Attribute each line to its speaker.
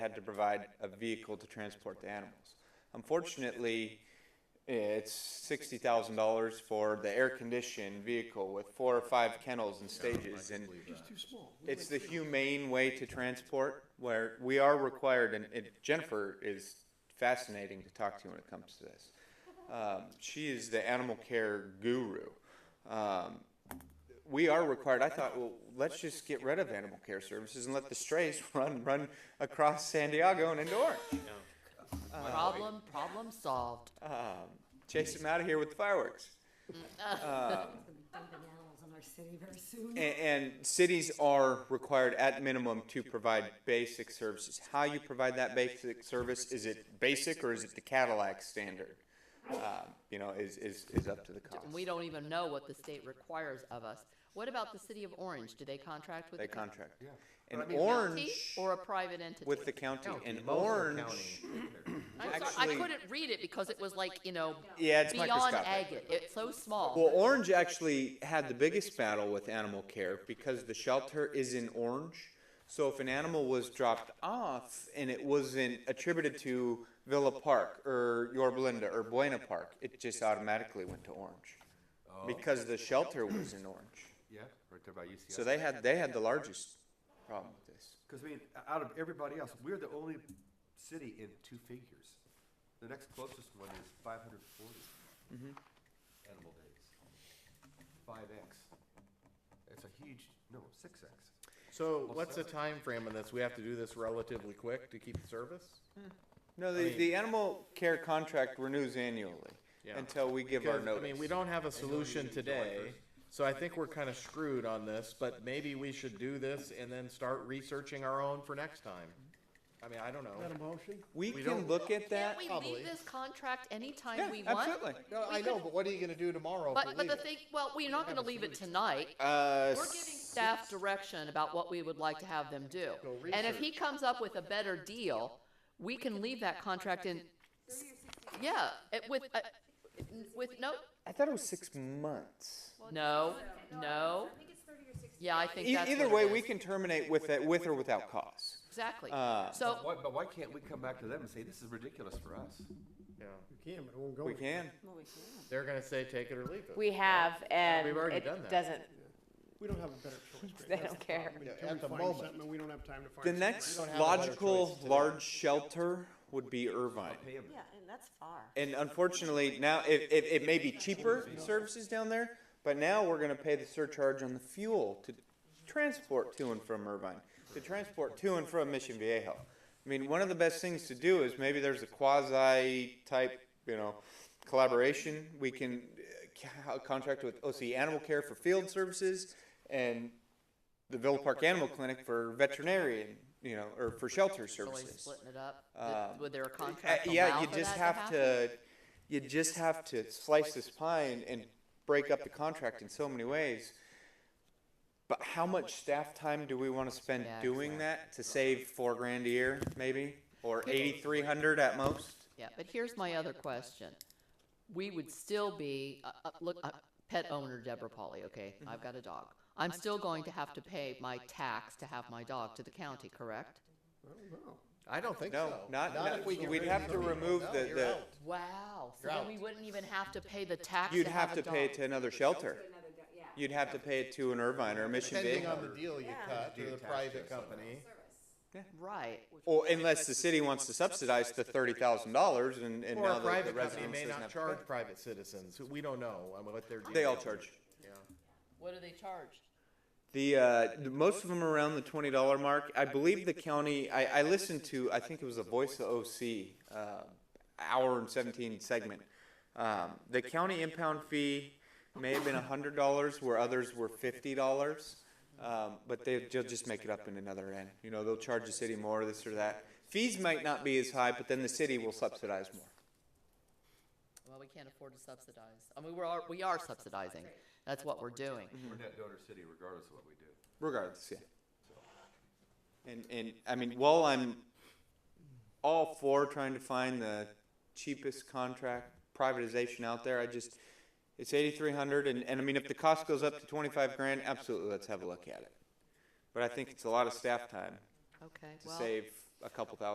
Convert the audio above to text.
Speaker 1: had to provide a vehicle to transport the animals. Unfortunately, it's sixty thousand dollars for the air-conditioned vehicle with four or five kennels and stages, and
Speaker 2: It's too small.
Speaker 1: it's the humane way to transport where we are required, and and Jennifer is fascinating to talk to when it comes to this. Um, she is the animal care guru. Um, we are required, I thought, well, let's just get rid of animal care services and let the strays run, run across San Diego and into Orange.
Speaker 3: Problem, problem solved.
Speaker 1: Um, chase them out of here with fireworks.
Speaker 4: dumping animals in our city very soon.
Speaker 1: And, and cities are required at minimum to provide basic services. How you provide that basic service, is it basic or is it the Cadillac standard? Um, You know, is, is, is up to the cost.
Speaker 3: And we don't even know what the state requires of us. What about the city of Orange? Do they contract with?
Speaker 1: They
Speaker 3: the county
Speaker 1: contract. And
Speaker 2: But I mean-
Speaker 1: Orange
Speaker 3: Or a private entity?
Speaker 1: with the county and
Speaker 2: Most are
Speaker 1: Orange,
Speaker 2: counting.
Speaker 3: I'm sorry, I
Speaker 1: actually-
Speaker 3: couldn't read it because it was like, you know.
Speaker 1: Yeah, it's
Speaker 3: Beyond
Speaker 1: microscopic.
Speaker 3: agate. It's so small.
Speaker 1: well, Orange actually had the biggest battle with animal care because the shelter is in Orange. So if an animal was dropped off and it wasn't attributed to Villa Park or Yorba Linda or Buena Park, it just automatically went to Orange
Speaker 5: Oh.
Speaker 1: because the shelter was in Orange.
Speaker 2: Yeah, right there by UCI.
Speaker 1: So they had, they had the largest problem with this.
Speaker 2: Because I mean, out of everybody else, we're the only city in two figures. The next closest one is five hundred forty animal days. Five X. It's a huge, no, six X.
Speaker 5: So what's the time frame on this? We have to do this relatively quick to keep the service?
Speaker 1: No, the, the animal care contract renews annually
Speaker 5: Yeah.
Speaker 1: until we give our
Speaker 5: Because, I
Speaker 1: notice.
Speaker 5: mean, we don't have a solution today, so I think we're kind of screwed on this, but maybe we should do this and then start researching our own for next time. I mean, I don't know.
Speaker 6: Got a motion?
Speaker 1: We
Speaker 5: we
Speaker 1: can
Speaker 5: don't-
Speaker 1: look at that.
Speaker 3: Can't we
Speaker 5: probably.
Speaker 3: leave this contract anytime
Speaker 1: Yeah,
Speaker 3: we want?
Speaker 1: absolutely.
Speaker 5: No, I know, but what are you gonna do tomorrow if we
Speaker 3: But, but
Speaker 5: leave
Speaker 3: the
Speaker 5: it?
Speaker 3: thing, well, we're not gonna leave it tonight.
Speaker 1: Uh,
Speaker 3: We're giving staff direction about what we would like to have them do.
Speaker 5: Go
Speaker 3: And if he comes up with a better deal, we can leave that contract in, yeah, it- with, uh, with, no,
Speaker 1: I thought it was six months.
Speaker 3: no, no. Yeah, I think
Speaker 1: E-
Speaker 3: that's
Speaker 1: either
Speaker 3: what
Speaker 1: way,
Speaker 3: it
Speaker 1: we
Speaker 3: is.
Speaker 1: can terminate with it, with or without cause.
Speaker 3: Exactly.
Speaker 1: Uh,
Speaker 3: So,
Speaker 2: Why, but why can't we come back to them and say, this is ridiculous for us?
Speaker 5: Yeah.
Speaker 6: We can, but it won't go.
Speaker 1: We can.
Speaker 5: They're gonna say take it or leave it.
Speaker 7: We have, and
Speaker 5: We've already
Speaker 7: it
Speaker 5: done that.
Speaker 7: doesn't,
Speaker 6: We don't have a better choice.
Speaker 7: they don't care.
Speaker 6: Until we
Speaker 5: at the
Speaker 6: find
Speaker 5: moment.
Speaker 6: something, we don't have time to find.
Speaker 1: The
Speaker 6: something.
Speaker 1: next
Speaker 5: have a lot of
Speaker 1: logical
Speaker 5: choice today.
Speaker 1: large shelter would be Irvine.
Speaker 2: Pay them.
Speaker 7: Yeah, and that's far.
Speaker 1: And unfortunately, now it, it, it may be cheaper services down there, but now we're going to pay the surcharge on the fuel to transport to and from Irvine, to transport to and from Mission Viejo. I mean, one of the best things to do is maybe there's a quasi type, you know, collaboration. We can uh, co- contract with OC Animal Care for field services and the Villa Park Animal Clinic for veterinarian, you know, or for shelter
Speaker 3: really
Speaker 1: services.
Speaker 3: splitting it up,
Speaker 1: Um,
Speaker 3: Th- would there a
Speaker 1: Uh,
Speaker 3: contract
Speaker 1: Yeah,
Speaker 3: allow
Speaker 1: you
Speaker 3: for
Speaker 1: just
Speaker 3: that
Speaker 1: have
Speaker 3: happen?
Speaker 1: to, you just have to slice this pie and, and break up the contract in so many ways. But how much staff time do we wanna spend
Speaker 3: Yeah,
Speaker 1: doing that to save four grand a year, maybe? Or eighty-three hundred at most?
Speaker 3: Yeah, but here's my other question. We would still be, uh, uh, look, uh, pet owner Deborah Polly, okay? I've got a dog. I'm still going to have to pay my tax to have my dog to the county, correct?
Speaker 5: I don't think so.
Speaker 1: No, not,
Speaker 5: Not
Speaker 1: not,
Speaker 5: if we get
Speaker 1: we'd
Speaker 5: rid of
Speaker 1: have to
Speaker 5: these people.
Speaker 1: remove
Speaker 5: No,
Speaker 1: the,
Speaker 5: you're
Speaker 1: the,
Speaker 5: out.
Speaker 3: Wow, so
Speaker 5: You're
Speaker 3: then
Speaker 5: out.
Speaker 3: we wouldn't even have to pay the tax
Speaker 1: you'd
Speaker 3: to have
Speaker 1: have
Speaker 3: a
Speaker 1: to pay it
Speaker 3: dog.
Speaker 1: to another shelter. You'd have to pay it to an Irvine or a Mission
Speaker 5: Depending
Speaker 1: Viejo.
Speaker 5: on the deal you
Speaker 7: Yeah.
Speaker 5: cut to
Speaker 2: Do
Speaker 5: the
Speaker 2: tax check
Speaker 5: private company.
Speaker 3: Right,
Speaker 1: Or unless the city wants to subsidize the thirty thousand dollars and, and
Speaker 5: Or
Speaker 1: now
Speaker 5: a
Speaker 1: the- the
Speaker 5: private company
Speaker 1: residents
Speaker 5: may
Speaker 1: doesn't
Speaker 5: not
Speaker 1: have to
Speaker 5: charge private citizens. We don't know um, what they're
Speaker 1: pay.
Speaker 5: doing.
Speaker 1: They all charge.
Speaker 3: what do they charge?
Speaker 1: The, uh, the most of them are around the twenty dollar mark. I believe the county. I, I listened to. I think it was a Voice of OC uh, hour and seventeen segment. Um, the county impound fee may have been hundred dollars, where others were fifty dollars. Um, but they, they'll just make it up in another end. You know, they'll charge the city more, this or that. Fees might not be as high, but then the city will subsidize more.
Speaker 3: Well, we can't afford to subsidize. I mean, we're, al- we are subsidizing. That's what we're doing.
Speaker 2: We're net donor city regardless of what we do.
Speaker 1: regardless, yeah. And, and, I mean, while I'm all for trying to find the cheapest contract privatization out there, I just, it's eighty-three hundred, and, and I mean, if the cost goes up to twenty-five grand, absolutely, let's have a look at it. But I think it's a lot of staff time
Speaker 3: Okay,
Speaker 1: to
Speaker 3: well.
Speaker 1: save a couple thousand